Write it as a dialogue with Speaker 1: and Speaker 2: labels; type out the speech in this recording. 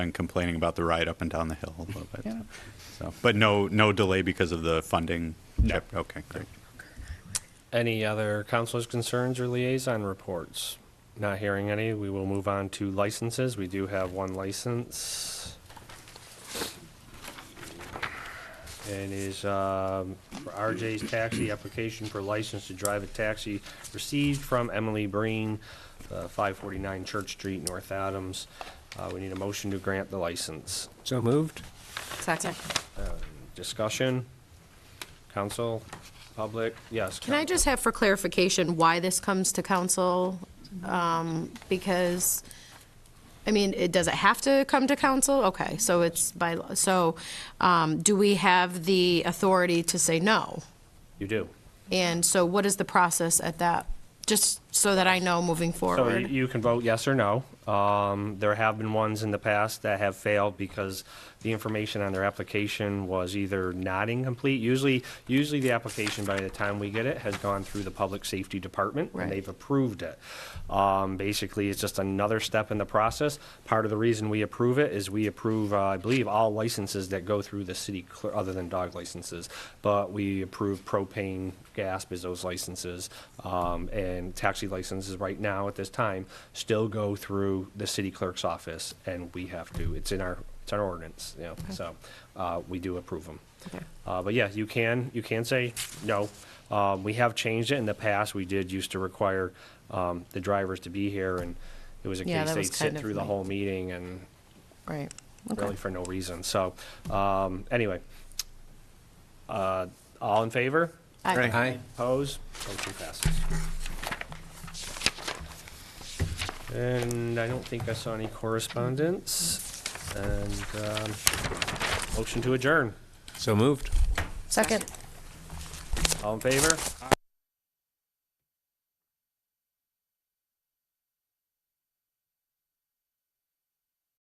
Speaker 1: been complaining about the ride up and down the hill a little bit. So, but no, no delay because of the funding. No. Okay, great.
Speaker 2: Any other councilors' concerns or liaison reports? Not hearing any, we will move on to licenses. We do have one license. And is um, for RJ's Taxi, application for license to drive a taxi received from Emily Breen, uh, 549 Church Street, North Adams. Uh, We need a motion to grant the license.
Speaker 3: So moved?
Speaker 4: Second.
Speaker 2: Discussion? Council? Public? Yes.
Speaker 4: Can I
Speaker 2: Council.
Speaker 4: just have for clarification why this comes to council? Um, Because, I mean, it, does it have to come to council? Okay, so it's by, law. so um, do we have the authority to say no?
Speaker 2: You do.
Speaker 4: And so what is the process at that? Just so that I know moving
Speaker 2: So you-
Speaker 4: forward.
Speaker 2: you can vote yes or no. Um, There have been ones in the past that have failed because the information on their application was either not incomplete. Usually, usually the application, by the time we get it, has gone through the Public Safety Department,
Speaker 4: Right.
Speaker 2: and they've approved it. Um, Basically, it's just another step in the process. Part of the reason we approve it is we approve, uh, I believe, all licenses that go through the city, cler- other than dog licenses, but we approve propane, gas, as those licenses, um, and taxi licenses right now at this time still go through the city clerk's office, and we have to, it's in our, it's our ordinance, you know, so uh, we do approve them.
Speaker 4: Okay.
Speaker 2: Uh, But yeah, you can, you can say no. Um, We have changed it in the past. We did used to require um, the drivers to be here, and it was a
Speaker 4: Yeah,
Speaker 2: case
Speaker 4: that was
Speaker 2: they'd sit
Speaker 4: kind of
Speaker 2: through the
Speaker 4: my-
Speaker 2: whole meeting and
Speaker 4: Right.
Speaker 2: really for no reason. So, um, anyway. Uh, All in favor?
Speaker 4: I-
Speaker 3: Aye.
Speaker 2: Opposed? Motion passes. And I don't think I saw any correspondence. And um, motion to adjourn.
Speaker 3: So moved?
Speaker 4: Second.
Speaker 2: All in favor?